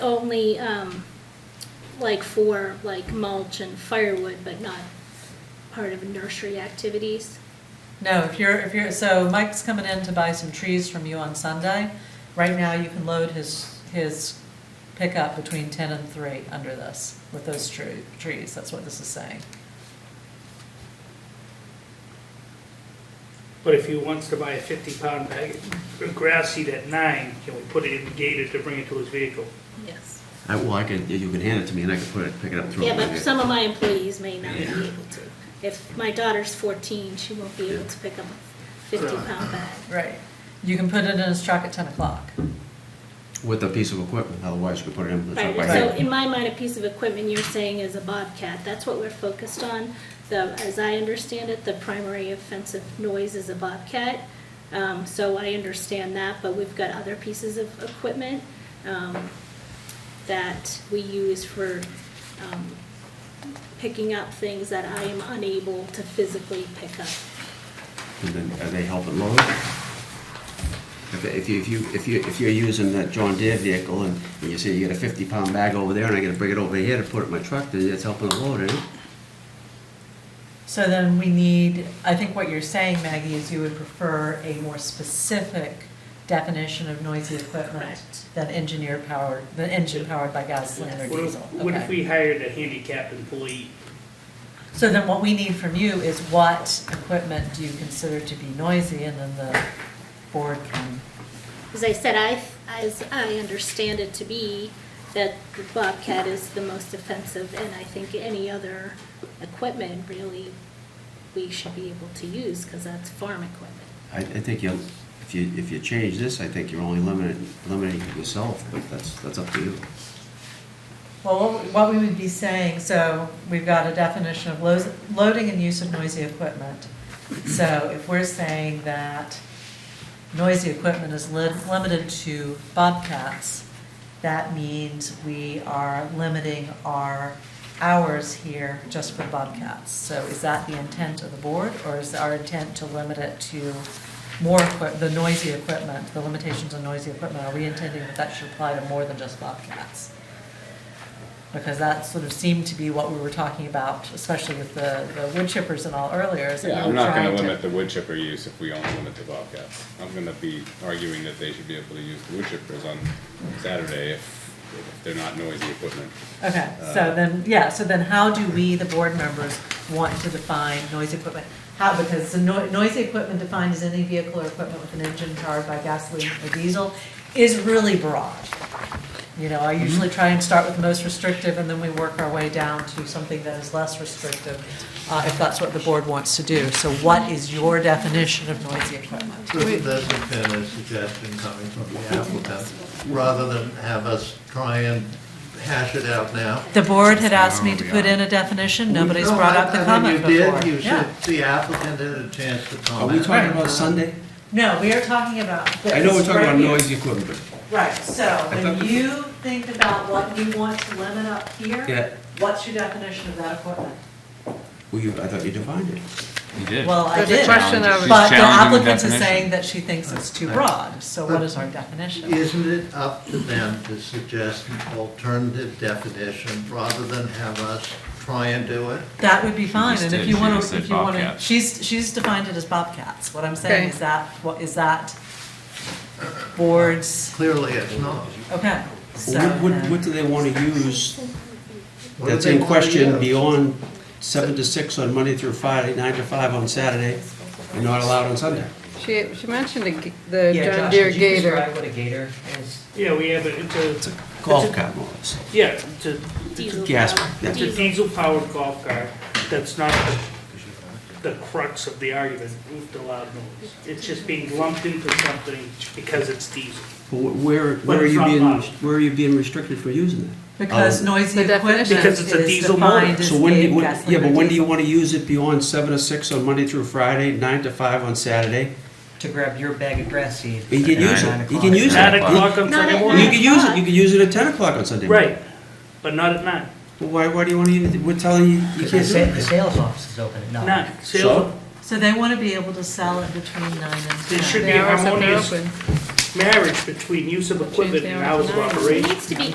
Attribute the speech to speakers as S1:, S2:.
S1: only, um, like for like mulch and firewood, but not part of nursery activities.
S2: No, if you're, if you're, so Mike's coming in to buy some trees from you on Sunday. Right now, you can load his, his pickup between ten and three under this, with those tree, trees, that's what this is saying.
S3: But if he wants to buy a fifty pound bag of grass seed at nine, can we put it in the gator to bring it to his vehicle?
S1: Yes.
S4: I, well, I could, you can hand it to me and I can put it, pick it up through.
S1: Yeah, but some of my employees may not be able to. If my daughter's fourteen, she won't be able to pick up a fifty pound bag.
S2: Right. You can put it in his truck at ten o'clock.
S4: With a piece of equipment, otherwise you could put it in the
S1: Right,
S4: truck by
S1: so
S4: hand.
S1: in my mind, a piece of equipment you're saying is a Bobcat, that's what we're focused on. The, as I understand it, the primary offensive noise is a Bobcat. Um, so I understand that, but we've got other pieces of equipment, um, that we use for, um, picking up things that I am unable to physically pick up.
S4: And then, are they helping load? If, if you, if you, if you, if you're using that John Deere vehicle and and you say you get a fifty pound bag over there and I gotta bring it over here to put it in my truck, then it's helping to load it.
S2: So then we need, I think what you're saying, Maggie, is you would prefer a more specific definition of noisy equipment
S1: Correct.
S2: than engineer powered, than engine powered by gasoline or
S1: Yes.
S3: What if,
S2: diesel.
S3: what if
S2: Okay.
S3: we hired a handicapped employee?
S2: So then what we need from you is what equipment do you consider to be noisy, and then the board can,
S1: As I said, I, as I understand it to be, that the Bobcat is the most offensive, and I think any other equipment really we should be able to use, because that's farm equipment.
S4: I, I think you, if you, if you change this, I think you're only limiting, limiting yourself, but that's, that's up to you.
S2: well, what we would be saying, so we've got a definition of lo- loading and use of noisy equipment. So if we're saying that noisy equipment is li- limited to bobcats, that means we are limiting our hours here just for bobcats. So is that the intent of the board, or is our intent to limit it to more equip, the noisy equipment, the limitations on noisy equipment? Are we intending that that should apply to more than just bobcats? Because that sort of seemed to be what we were talking about, especially with the, the wood chippers and all earlier, is that we
S5: Yeah,
S2: were
S5: I'm not gonna
S2: trying to-
S5: limit the wood chipper use if we only limit the Bobcats. I'm gonna be arguing that they should be able to use the wood chippers on Saturday if if they're not noisy equipment.
S2: Okay,
S6: Uh,
S2: so then, yeah, so then how do we, the board members, want to define noisy equipment? How, because the noi- noisy equipment defined as any vehicle or equipment with an engine powered by gasoline or diesel is really broad. You know,
S6: Mm-hmm.
S2: I usually try and start with the most restrictive, and then we work our way down to something that is less restrictive, uh, if that's what the board wants to do. So what is your definition of noisy equipment?
S6: This this has been a suggestion coming from the applicant, rather than have us try and hash it out now.
S2: The board had asked me to put in a definition, nobody's
S6: No,
S2: brought
S6: I-
S2: up the
S6: I mean,
S2: comment before.
S6: You did, you
S2: Yeah.
S6: should, the applicant had a chance to
S4: Oh, Are
S6: comment.
S4: we talking about Sunday?
S2: No, we are talking about this.
S4: I know we're talking
S2: right
S4: about
S2: here.
S4: noisy equipment,
S2: Right, so when you think about what you want to limit up
S4: Yeah.
S2: here, what's your definition of that equipment?
S4: but, well, you, I thought you defined it.
S5: You did.
S2: Well, I
S7: There's a
S2: did,
S7: question of- She's
S2: but the
S5: challenging the
S2: applicant is
S5: definition.
S2: saying that she thinks it's too broad, so what is our definition?
S6: Isn't it up to them to suggest an alternative definition, rather than have us try and do it?
S2: That would be fine,
S5: just
S2: and if
S5: did.
S2: you
S5: She
S2: wanna,
S5: just said
S2: if you wanna,
S5: bobcats.
S2: she's, she's defined it as bobcats, what I'm saying
S7: Okay.
S2: is that, what, is that boards,
S6: Clearly, it's not.
S2: okay, so.
S4: Well, What, what,
S2: then-
S4: what do they wanna use
S6: What do
S4: that's
S6: they
S4: in
S6: want to
S4: question
S6: use?
S4: beyond seven to six on Monday through Friday, nine to five on Saturday, and not allowed on Sunday?
S7: She, she mentioned the g- the
S8: Yeah,
S7: John
S8: Josh,
S7: Deere
S8: could you
S7: Gator.
S8: describe what a gator is?
S3: Yeah, we have, a- it's a,
S4: Golf cart more or less.
S3: yeah, it's a,
S1: Diesel
S4: gas-
S1: power-
S4: that's
S3: it's a
S1: diesel.
S3: diesel powered golf cart. That's not the- the crux of the argument with the loud noise. It's just being lumped into something because it's diesel.
S4: But wh- Where, where are
S3: it's
S4: you
S3: not
S4: being,
S3: allowed.
S4: where are you being restricted for using that?
S2: Because
S4: Um,
S2: noisy
S7: The
S2: equipment
S7: definition.
S2: is
S3: Because it's a diesel motor.
S2: defined as
S4: So when, do
S2: a
S4: you- when-
S2: gasoline
S4: yeah, but
S2: or
S4: when do you
S2: diesel.
S4: wanna use it beyond seven to six on Monday through Friday, nine to five on Saturday?
S8: To grab your bag of grass seed.
S4: You can
S8: at
S4: use
S8: nine
S4: it, you
S8: o'clock.
S4: can use it.
S3: Nine o'clock on
S1: Not
S3: Sunday
S1: at
S4: You
S3: morning.
S1: night.
S4: can use it, you can use it at ten o'clock on Sunday morning.
S3: Right, but not at nine.
S4: Well, Why, why do you wanna, even- we're telling you, you
S8: Because the
S4: can't do
S8: sa- the
S4: it.
S8: sales office is open at nine.
S3: Nine.
S4: So?
S3: Sales,
S2: So they want to be able to sell it between nine and
S3: They
S2: ten.
S3: should-
S7: The hours that they're
S3: harmonious.
S7: open.
S3: marriage between use of equipment and hours of
S7: Change the hours to
S3: operation.
S1: It needs to be